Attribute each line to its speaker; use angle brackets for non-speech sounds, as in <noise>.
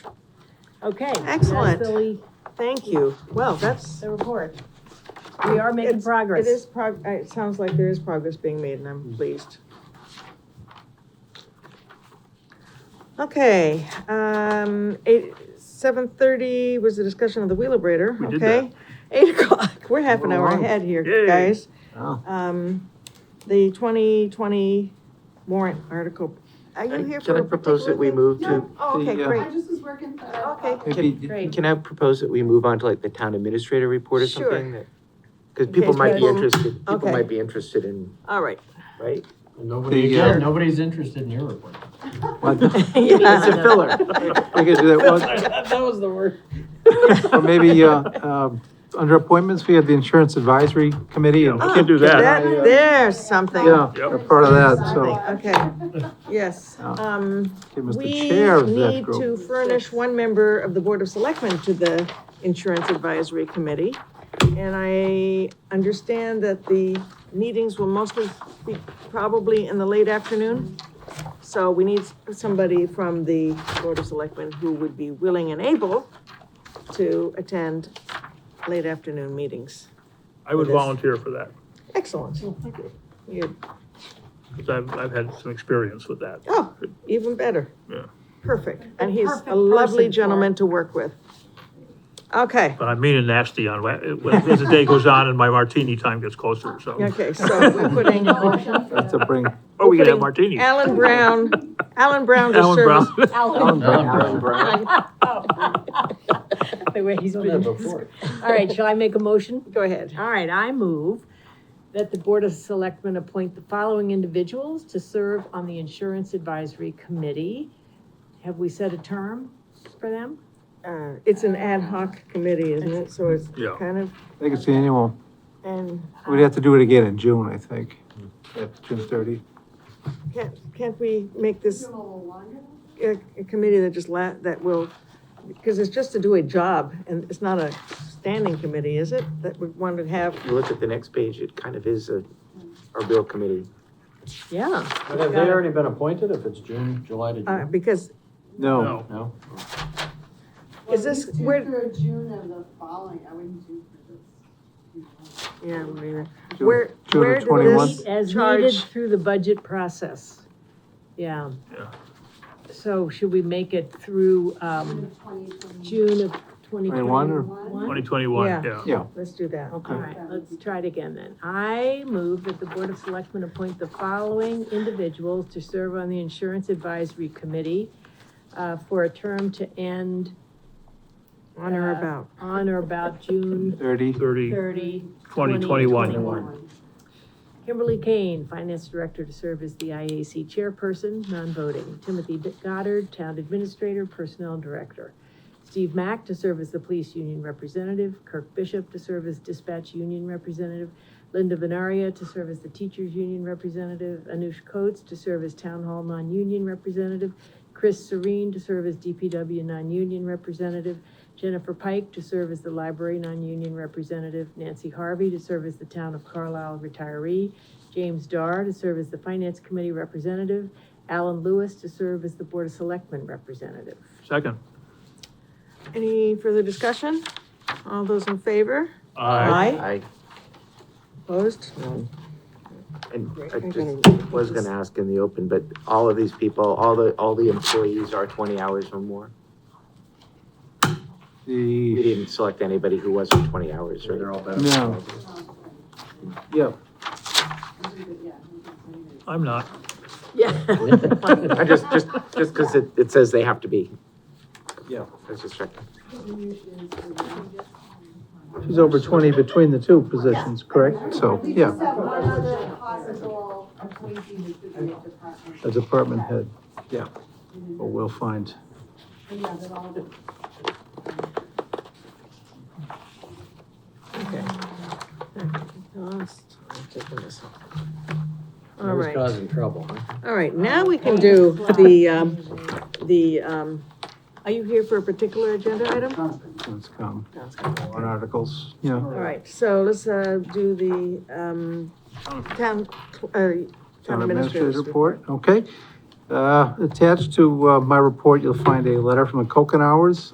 Speaker 1: Okay.
Speaker 2: Excellent.
Speaker 1: That's Billy,
Speaker 2: Thank you. Well, that's,
Speaker 1: the report. We are making
Speaker 2: It's- it
Speaker 1: progress.
Speaker 2: is prog, uh, it sounds like there is progress being made and
Speaker 3: Mm.
Speaker 2: I'm pleased. Okay, um, eight, seven thirty was the discussion of the Wheelabrator,
Speaker 4: We did
Speaker 2: okay? Eight o'clock, we're half an
Speaker 4: We're
Speaker 2: hour
Speaker 4: along.
Speaker 2: ahead here,
Speaker 4: Yay.
Speaker 2: guys.
Speaker 4: Wow.
Speaker 2: Um, the twenty twenty warrant article. Are you
Speaker 3: Can
Speaker 2: here for
Speaker 3: I
Speaker 2: a
Speaker 3: propose that
Speaker 2: particular
Speaker 3: we
Speaker 2: thing?
Speaker 3: move
Speaker 2: No?
Speaker 3: to,
Speaker 2: Oh, okay,
Speaker 3: the, uh,
Speaker 2: great.
Speaker 5: I just was working for.
Speaker 2: Okay.
Speaker 3: maybe,
Speaker 1: Great.
Speaker 3: can I propose that we move on to like the town administrator report or
Speaker 2: Sure.
Speaker 3: something? that- Cause
Speaker 2: In
Speaker 3: people
Speaker 2: case
Speaker 3: might be
Speaker 2: people-
Speaker 3: interested, people
Speaker 2: okay.
Speaker 3: might be interested in,
Speaker 2: All right.
Speaker 3: right?
Speaker 6: Nobody,
Speaker 3: The, uh,
Speaker 6: yeah, nobody's interested in your report.
Speaker 3: <laughs> <laughs> It's a filler. We could do that. Well,
Speaker 6: <laughs> That was the word.
Speaker 7: Or maybe, uh, um, under appointments, we had the Insurance Advisory Committee. and-
Speaker 4: Yeah, we can do that.
Speaker 2: That, there's something.
Speaker 7: Yeah,
Speaker 4: Yep.
Speaker 7: they're part of that, so
Speaker 2: Okay, <laughs> yes,
Speaker 3: Oh.
Speaker 2: um,
Speaker 7: Kim is the
Speaker 2: we
Speaker 7: chair of that
Speaker 2: need
Speaker 7: group.
Speaker 2: to furnish one member of the Board of Selectmen to the Insurance Advisory Committee. And I understand that the meetings will mostly be probably in the late afternoon. So we need somebody from the Board of Selectmen who would be willing and able to attend late afternoon meetings.
Speaker 4: I would
Speaker 2: It is.
Speaker 4: volunteer for that,
Speaker 2: Excellent. You're
Speaker 4: because I've, I've had some experience with that.
Speaker 2: Oh, even better.
Speaker 4: Yeah.
Speaker 2: Perfect,
Speaker 1: The
Speaker 2: and he's
Speaker 1: perfect
Speaker 2: a
Speaker 1: person for
Speaker 2: lovely
Speaker 1: it.
Speaker 2: gentleman to work with. Okay,
Speaker 4: But I'm mean and nasty on, wa- as the day goes on and my martini time gets closer, so.
Speaker 1: <laughs>
Speaker 2: okay,
Speaker 4: <laughs>
Speaker 2: so we're putting
Speaker 7: That's a bring.
Speaker 4: Or we could have
Speaker 2: Putting
Speaker 4: martini.
Speaker 2: Alan
Speaker 4: <laughs>
Speaker 2: Brown, Alan Brown to
Speaker 4: Alan
Speaker 2: serve.
Speaker 4: Brown.
Speaker 1: <laughs> Alan,
Speaker 2: on-
Speaker 1: <laughs> the way he's been.
Speaker 6: before.
Speaker 1: <laughs> All right, shall I make a motion?
Speaker 2: Go ahead.
Speaker 1: All right, I move that the Board of Selectmen appoint the following individuals to serve on the Insurance Advisory Committee. Have we set a term for them?
Speaker 2: Uh, It's an ad hoc committee, isn't it? So it's
Speaker 4: Yeah.
Speaker 2: kind of,
Speaker 7: I think it's the annual.
Speaker 2: and
Speaker 7: We'd have to do it again in June, I think, at June thirty.
Speaker 2: can't, can't we make this a, a committee that just la, that will, because it's just to do a job, and it's not a standing committee, is it? That we want to have,
Speaker 3: If you look at the next page, it kind of is a, a real committee.
Speaker 2: yeah,
Speaker 6: But have they already been appointed if it's June, July to
Speaker 2: uh,
Speaker 6: June?
Speaker 2: because
Speaker 7: No,
Speaker 4: <laughs>
Speaker 2: <laughs>
Speaker 4: No,
Speaker 6: No?
Speaker 2: Is this- where-
Speaker 5: Through June of the following, I wouldn't do for this.
Speaker 2: Yeah, we-
Speaker 7: June-
Speaker 2: where,
Speaker 7: June of
Speaker 2: where did
Speaker 7: 21.
Speaker 2: this
Speaker 1: Meet As needed
Speaker 2: charge?
Speaker 1: through the budget process. Yeah.
Speaker 4: Yeah.
Speaker 1: So should we make it through, um, June of twenty
Speaker 7: Twenty-one or-
Speaker 1: twenty-one?
Speaker 4: twenty twenty-one,
Speaker 2: Yeah.
Speaker 4: yeah.
Speaker 2: Let's do that.
Speaker 1: All right, let's try it again then. I move that the Board of Selectmen appoint the following individuals to serve on the Insurance Advisory Committee uh, for a term to end
Speaker 2: On or
Speaker 1: Uh,
Speaker 2: about.
Speaker 1: on or about June
Speaker 7: thirty.
Speaker 4: Thirty,
Speaker 1: thirty.
Speaker 4: twenty
Speaker 1: 2021.
Speaker 4: twenty-one.
Speaker 1: Kimberly Kane, Finance Director to serve as the IAC Chairperson, non-voting. Timothy Goddard, Town Administrator, Personnel Director. Steve Mack to serve as the Police Union Representative. Kirk Bishop to serve as Dispatch Union Representative. Linda Venaria to serve as the Teachers Union Representative. Anush Coates to serve as Town Hall Non-Union Representative. Chris Serene to serve as DPW Non-Union Representative. Jennifer Pike to serve as the library non-union representative, Nancy Harvey to serve as the town of Carlisle retiree, James Dar to serve as the finance committee representative, Alan Lewis to serve as the board of selectmen representative.
Speaker 4: Second.
Speaker 2: Any further discussion? All those in favor? Uh,
Speaker 3: I,
Speaker 2: Opposed?
Speaker 3: and I
Speaker 2: I'm
Speaker 3: just was gonna ask in the open, but all of these people, all the, all the employees are twenty hours or more. We
Speaker 7: The,
Speaker 3: didn't select anybody who wasn't twenty hours,
Speaker 6: <laughs>
Speaker 3: right?
Speaker 6: all better.
Speaker 7: no, yeah,
Speaker 4: I'm not.
Speaker 1: Yeah.
Speaker 3: I just, just, just because it, it says they have to be.
Speaker 7: Yeah.
Speaker 3: I was just checking.
Speaker 7: she's over twenty between the two positions, correct? So,
Speaker 5: We
Speaker 7: yeah,
Speaker 5: just have one other possible appointee who could be a department.
Speaker 7: as department head, yeah, but we'll find.
Speaker 5: And yeah, they're all-
Speaker 2: Lost. I'm taking this off. All
Speaker 6: I was
Speaker 2: right,
Speaker 6: causing trouble, huh?
Speaker 2: all right, now we can do the, um, the, um, are you here for a particular agenda item?
Speaker 7: Let's come, warrant articles, yeah.
Speaker 2: All right, so let's, uh, do the, um, town, uh,
Speaker 7: Town Administrator's Report, okay. Uh, Attached to uh, my report, you'll find a letter from the Coconours